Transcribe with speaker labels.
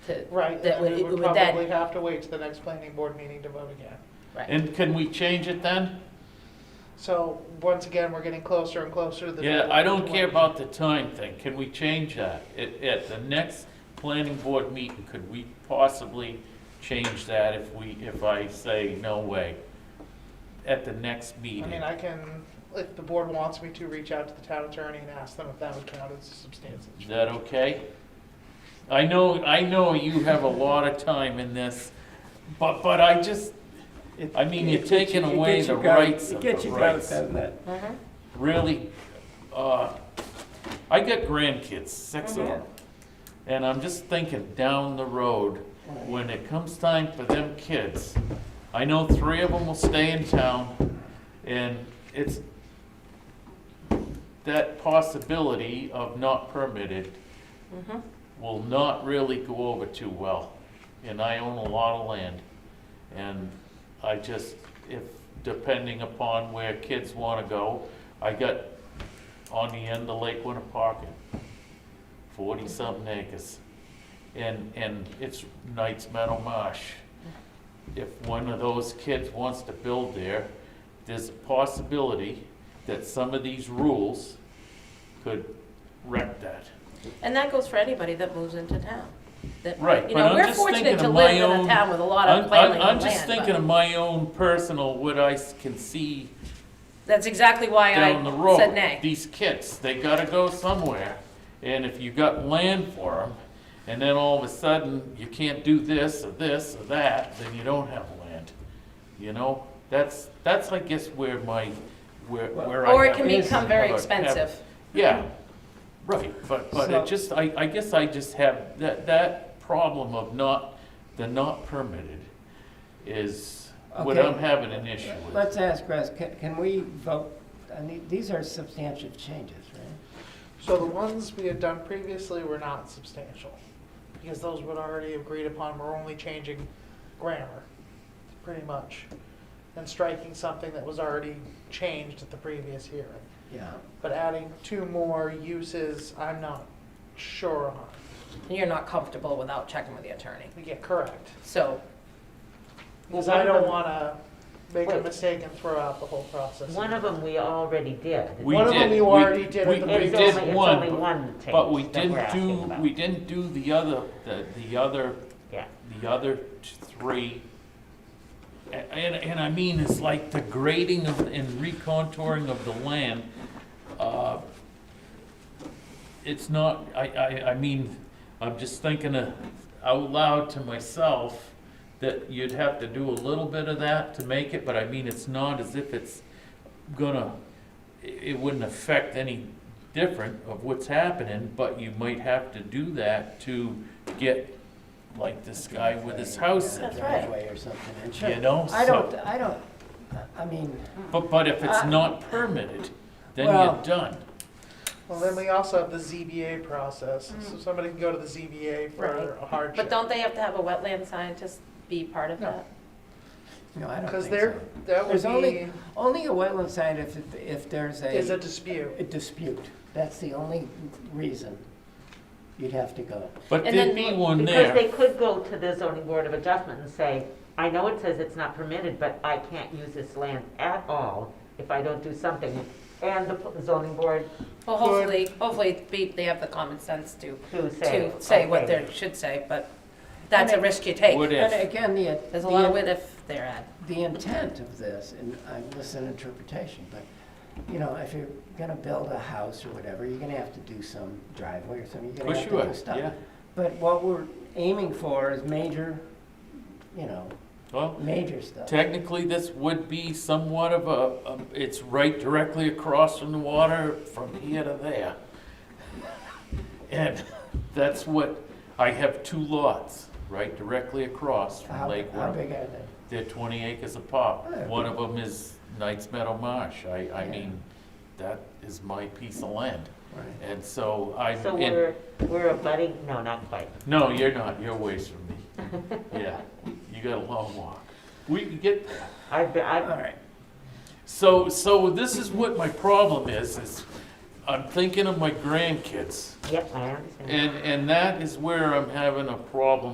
Speaker 1: Right,
Speaker 2: That
Speaker 1: and
Speaker 2: would,
Speaker 1: then we
Speaker 2: it
Speaker 1: would
Speaker 2: would then,
Speaker 1: probably have to wait to the next planning board meeting to vote again.
Speaker 2: right,
Speaker 3: And can we change it then?
Speaker 1: So, once again, we're getting closer and closer to the.
Speaker 3: Yeah,
Speaker 1: deadline
Speaker 3: I
Speaker 1: for
Speaker 3: don't
Speaker 1: 20.
Speaker 3: care about the time thing. Can we change that? At, at the next planning board meeting, could we possibly change that if we, if I say no way? At the next
Speaker 1: I
Speaker 3: meeting?
Speaker 1: mean, I can, if the board wants me to, reach out to the town attorney and ask them if that would count as a substantial.
Speaker 3: Is that okay? I know, I know you have a lot of time in this, but, but I just,
Speaker 4: It-
Speaker 3: I mean,
Speaker 4: it
Speaker 3: you're
Speaker 4: gets
Speaker 3: taking
Speaker 4: you- it
Speaker 3: away
Speaker 4: gets you
Speaker 3: the
Speaker 4: gout-
Speaker 3: rights of
Speaker 4: It gets
Speaker 3: the
Speaker 4: you gout,
Speaker 3: rights.
Speaker 4: doesn't it?
Speaker 2: mhm,
Speaker 3: really, uh, I got grandkids, six of them. And I'm just thinking down the road, when it comes time for them kids, I know three of them will stay in town and it's that possibility of not permitted
Speaker 2: mhm.
Speaker 3: will not really go over too well. And I own a lot of land. And I just, if, depending upon where kids want to go, I got on the end of Lake Winnepocket, forty-something acres. And, and it's Knights Meadow Marsh. If one of those kids wants to build there, there's a possibility that some of these rules could wreck that.
Speaker 2: And that goes for anybody that moves into town. That-
Speaker 3: Right,
Speaker 2: You
Speaker 3: but
Speaker 2: know,
Speaker 3: I'm
Speaker 2: we're
Speaker 3: just
Speaker 2: fortunate
Speaker 3: thinking
Speaker 2: to
Speaker 3: of
Speaker 2: live
Speaker 3: my
Speaker 2: in a
Speaker 3: own-
Speaker 2: town with a lot
Speaker 3: I'm,
Speaker 2: of
Speaker 3: I'm,
Speaker 2: planting
Speaker 3: I'm
Speaker 2: land,
Speaker 3: just thinking of
Speaker 2: but
Speaker 3: my own personal, what I s- can see
Speaker 2: that's exactly why
Speaker 3: down the
Speaker 2: I
Speaker 3: road.
Speaker 2: said nay.
Speaker 3: These kids, they gotta go somewhere, and if you got land for them, and then all of a sudden, you can't do this or this or that, then you don't have land. You know, that's, that's, I guess, where my, where, where I.
Speaker 2: Or it
Speaker 3: have
Speaker 2: can
Speaker 4: be-
Speaker 2: become very
Speaker 3: have a- have-
Speaker 2: expensive.
Speaker 3: Yeah, right, but, but
Speaker 4: So-
Speaker 3: it just, I, I guess I just have, that, that problem of not, the not permitted is what
Speaker 4: Okay.
Speaker 3: I'm having an issue with.
Speaker 4: Let's ask Russ, can, can we vote, I mean, these are substantial changes, right?
Speaker 1: So the ones we had done previously were not substantial, because those were already agreed upon, we're only changing grammar, pretty much. And striking something that was already changed at the previous hearing.
Speaker 4: Yeah.
Speaker 1: But adding two more uses, I'm not sure on.
Speaker 2: You're not comfortable without checking with the attorney,
Speaker 1: Yeah, correct.
Speaker 2: so.
Speaker 1: Because I
Speaker 5: Well,
Speaker 1: don't
Speaker 5: one
Speaker 1: want to make a
Speaker 5: Wait.
Speaker 1: mistake and throw out the whole process.
Speaker 5: One of them we already did.
Speaker 3: We
Speaker 1: One of them
Speaker 3: did-
Speaker 1: you
Speaker 3: we-
Speaker 1: already did at
Speaker 3: we-
Speaker 1: the
Speaker 3: we
Speaker 5: It's
Speaker 1: previous-
Speaker 3: did
Speaker 5: only- it's
Speaker 3: one,
Speaker 5: only
Speaker 3: but-
Speaker 5: one
Speaker 3: But we
Speaker 5: change that we're
Speaker 3: didn't
Speaker 5: asking
Speaker 3: do,
Speaker 5: about.
Speaker 3: we didn't do the other, the, the other,
Speaker 5: Yeah.
Speaker 3: the other t- three. A- And, and I mean, it's like the grading of, and recontouring of the land, uh, it's not, I, I, I mean, I'm just thinking uh, out loud to myself that you'd have to do a little bit of that to make it, but I mean, it's not as if it's gonna, it it wouldn't affect any different of what's happening, but you might have to do that to get, like this guy with his house,
Speaker 4: Yeah,
Speaker 2: That's right.
Speaker 4: Driveway or something, and sure.
Speaker 3: you know?
Speaker 4: I
Speaker 3: so-
Speaker 4: don't, I don't, I- I mean,
Speaker 3: But, but if it's
Speaker 5: Uh,
Speaker 4: I-
Speaker 3: not permitted, then
Speaker 4: Well-
Speaker 3: you're done.
Speaker 1: Well, then we also have the ZBA process,
Speaker 5: Mm.
Speaker 1: so somebody can go to the ZBA for
Speaker 2: Right.
Speaker 1: a hardship.
Speaker 2: But don't they have to have a wetland scientist be part of
Speaker 1: No.
Speaker 2: that?
Speaker 4: no, I don't
Speaker 1: Because
Speaker 4: think
Speaker 1: there,
Speaker 4: so.
Speaker 1: that would
Speaker 4: There's only,
Speaker 1: be,
Speaker 4: only a wetland sign if, if there's
Speaker 1: is a
Speaker 4: a a
Speaker 1: dispute.
Speaker 4: dispute. That's the only reason you'd have to go.
Speaker 3: But
Speaker 2: And
Speaker 3: there'd
Speaker 2: then-
Speaker 3: be one
Speaker 5: Because they
Speaker 3: there,
Speaker 5: could go to the zoning board of adjustment and say, I know it says it's not permitted, but I can't use this land at all if I don't do something. And the p- zoning board
Speaker 2: Well,
Speaker 1: Could-
Speaker 2: hopefully, hopefully be- they have the common sense to,
Speaker 5: to say.
Speaker 2: to say what
Speaker 5: okay.
Speaker 2: they should say, but that's a risk you take.
Speaker 3: what
Speaker 4: And
Speaker 3: if?
Speaker 4: again, the.
Speaker 2: There's a
Speaker 4: the-
Speaker 2: lot of what if there, Ed.
Speaker 4: the intent of this, and I'm listening to interpretation, but, you know, if you're gonna build a house or whatever, you're gonna have to do some driveway or something, you're
Speaker 3: Well,
Speaker 4: gonna have
Speaker 3: sure,
Speaker 4: to do
Speaker 3: yeah.
Speaker 4: stuff. But what we're aiming for is major, you know,
Speaker 3: Well,
Speaker 4: major stuff.
Speaker 3: Technically, this would be somewhat of a, a- it's right directly across from the water, from here to there. And that's what, I have two lots, right directly across
Speaker 4: How,
Speaker 3: from Lake
Speaker 4: how
Speaker 3: Winnebago.
Speaker 4: big are they?
Speaker 3: They're twenty acres apart.
Speaker 4: Oh.
Speaker 3: One of them is Knights Meadow Marsh. I, I
Speaker 4: Yeah.
Speaker 3: mean, that is my piece of land.
Speaker 4: Right.
Speaker 3: And so I'm,
Speaker 5: So
Speaker 3: and-
Speaker 5: we're, we're abutting, no, not quite.
Speaker 3: no, you're not, you're ways from me. Yeah, you got a long walk. We can get there.
Speaker 5: I've, been- I've,
Speaker 4: All right,
Speaker 3: So, so this is what my problem is, is I'm thinking of my grandkids.
Speaker 5: yep, I understand.
Speaker 3: And, and that is where I'm having a problem